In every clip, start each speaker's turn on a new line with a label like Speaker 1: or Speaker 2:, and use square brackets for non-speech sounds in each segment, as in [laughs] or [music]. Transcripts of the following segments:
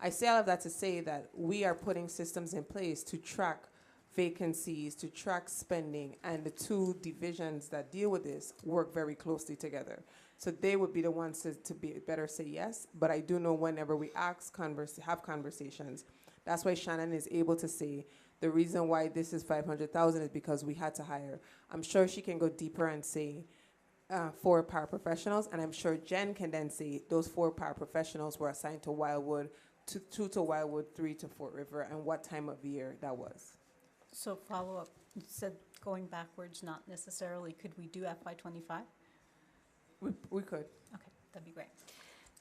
Speaker 1: I say all of that to say that we are putting systems in place to track vacancies, to track spending, and the two divisions that deal with this work very closely together. So they would be the ones to, to be better say yes. But I do know whenever we ask converse, have conversations, that's why Shannon is able to say the reason why this is five hundred thousand is because we had to hire. I'm sure she can go deeper and say uh, four paraprofessionals, and I'm sure Jen can then say those four paraprofessionals were assigned to Wildwood, to two to Wildwood, three to Fort River, and what time of year that was.
Speaker 2: So follow-up, you said going backwards, not necessarily, could we do FY twenty-five?
Speaker 1: We, we could.
Speaker 2: Okay, that'd be great.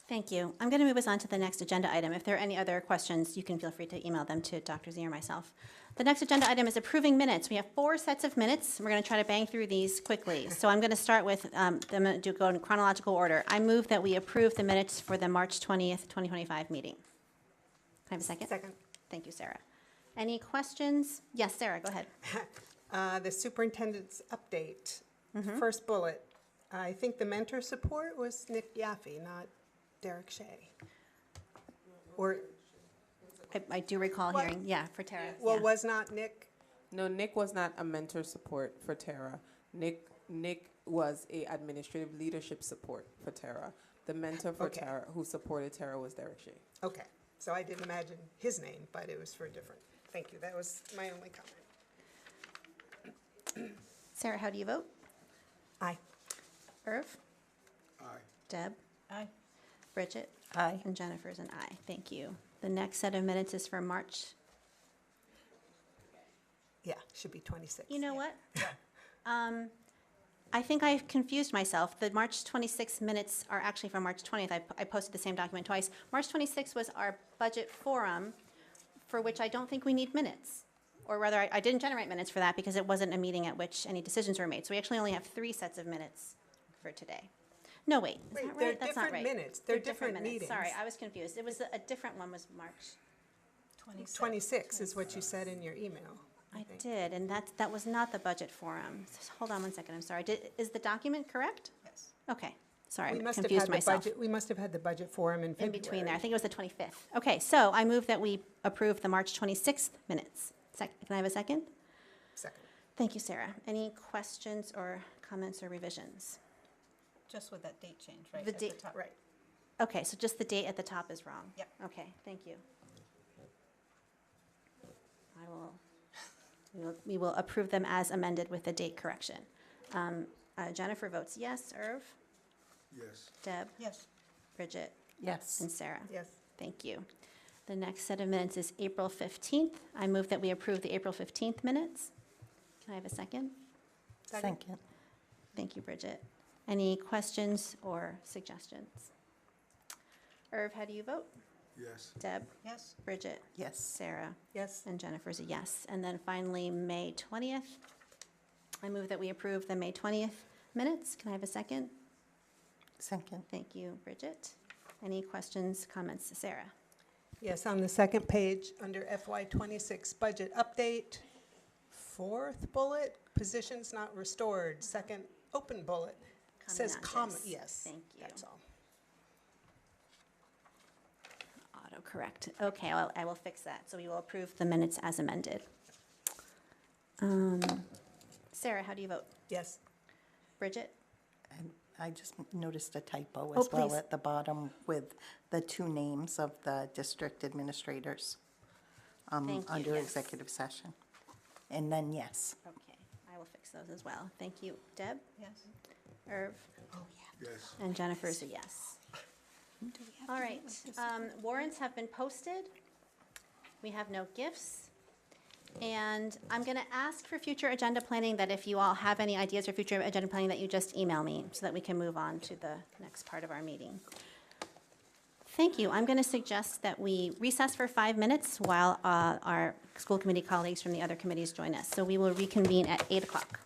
Speaker 3: Thank you. I'm going to move us on to the next agenda item. If there are any other questions, you can feel free to email them to Dr. Z or myself. The next agenda item is approving minutes. We have four sets of minutes. We're going to try to bang through these quickly. So I'm going to start with, um, I'm going to go in chronological order. I move that we approve the minutes for the March 20th, 2025 meeting. Can I have a second?
Speaker 4: Second.
Speaker 3: Thank you, Sarah. Any questions? Yes, Sarah, go ahead.
Speaker 4: Uh, The superintendent's update,
Speaker 3: Mm-hmm.
Speaker 4: first bullet. I think the mentor support was Nick Yaffe, not Derek Shea. Or,
Speaker 3: I- I do recall
Speaker 4: What?
Speaker 3: hearing, yeah, for Tara.
Speaker 4: well,
Speaker 3: yeah.
Speaker 4: was not Nick,
Speaker 1: No, Nick was not a mentor support for Tara. Nick Nick was a administrative leadership support for Tara. The mentor for
Speaker 4: Okay.
Speaker 1: Tara who supported Tara was Derek Shea.
Speaker 4: okay. So I didn't imagine his name, but it was for a different. Thank you, that was my only comment.
Speaker 3: Sarah, how do you vote?
Speaker 4: Aye.
Speaker 3: Irv?
Speaker 5: Aye.
Speaker 3: Deb?
Speaker 2: Aye.
Speaker 3: Bridget?
Speaker 4: Aye.
Speaker 3: And Jennifer's an aye. Thank you. The next set of minutes is for March.
Speaker 4: Yeah, should be 26.
Speaker 3: You know
Speaker 4: [laughs]
Speaker 3: what? Um, I think I confused myself. The March 26th minutes are actually from March 20th. I, I posted the same document twice. March 26th was our budget forum, for which I don't think we need minutes. Or rather, I, I didn't generate minutes for that because it wasn't a meeting at which any decisions were made. So we actually only have three sets of minutes for today. No, wait, is
Speaker 4: Wait,
Speaker 3: that
Speaker 4: they're
Speaker 3: right? That's not
Speaker 4: different
Speaker 3: right.
Speaker 4: minutes. They're different
Speaker 3: minutes. Sorry,
Speaker 4: meetings.
Speaker 3: I was confused. It was, a different one was March.
Speaker 2: Twenty-six.
Speaker 4: 26 is what you said in your email.
Speaker 3: I
Speaker 4: think.
Speaker 3: did, and that, that was not the budget forum. S- Hold on one second, I'm sorry. Did, is the document correct?
Speaker 2: Yes.
Speaker 3: Okay, sorry,
Speaker 4: We
Speaker 3: I
Speaker 4: must have had
Speaker 3: confused
Speaker 4: the
Speaker 3: myself.
Speaker 4: budget, we must have had the budget forum in
Speaker 3: In
Speaker 4: February.
Speaker 3: between there, I think it was the 25th. Okay, so I move that we approve the March 26th minutes. Sec, can I have a second?
Speaker 4: Second.
Speaker 3: Thank you, Sarah. Any questions or comments or revisions?
Speaker 2: Just with that date change, right?
Speaker 3: The
Speaker 2: at
Speaker 3: date,
Speaker 2: top.
Speaker 4: Right.
Speaker 3: Okay, so just the date at the top is wrong?
Speaker 2: Yep.
Speaker 3: Okay, thank you. I will, we will- we will approve them as amended with the date correction. Um, uh, Jennifer votes yes. Irv?
Speaker 5: Yes.
Speaker 3: Deb?
Speaker 2: Yes,
Speaker 3: Bridget?
Speaker 4: Yes.
Speaker 3: And Sarah?
Speaker 4: Yes.
Speaker 3: Thank you. The next set of minutes is April 15th. I move that we approve the April 15th minutes. Can I have a second?
Speaker 4: Second.
Speaker 3: Thank you, Bridget. Any questions or suggestions? Irv, how do you vote?
Speaker 5: Yes.
Speaker 3: Deb?
Speaker 2: yes,
Speaker 3: Bridget?
Speaker 4: Yes.
Speaker 3: Sarah?
Speaker 4: Yes.
Speaker 3: And Jennifer's a yes. And then finally, May 20th. I move that we approve the May 20th minutes. Can I have a second?
Speaker 4: Second.
Speaker 3: Thank you, Bridget. Any questions, comments, Sarah?
Speaker 4: Yes, on the second page, under FY twenty-six budget update, fourth bullet, positions not restored, second open bullet, says comma,
Speaker 3: Commonantes.
Speaker 4: yes.
Speaker 3: Thank you.
Speaker 4: That's all.
Speaker 3: Autocorrect. Okay, well, I will fix that. So we will approve the minutes as amended. Um, Sarah, how do you vote?
Speaker 4: Yes,
Speaker 3: Bridget?
Speaker 6: And I just noticed a typo
Speaker 3: Oh,
Speaker 6: as well
Speaker 3: please.
Speaker 6: at the bottom with the two names of the district administrators um,
Speaker 3: Thank you,
Speaker 6: under
Speaker 3: yes.
Speaker 6: executive session. And then yes.
Speaker 3: Okay, I will fix those as well. Thank you. Deb,
Speaker 2: yes.
Speaker 3: Irv,
Speaker 5: Yes.
Speaker 3: and Jennifer is a yes. All right, um, warrants have been posted. We have no gifts. And I'm going to ask for future agenda planning that if you all have any ideas for future agenda planning, that you just email me so that we can move on to the next part of our meeting. Thank you. I'm going to suggest that we recess for five minutes while uh, our school committee colleagues from the other committees join us. So we will reconvene at 8 o'clock.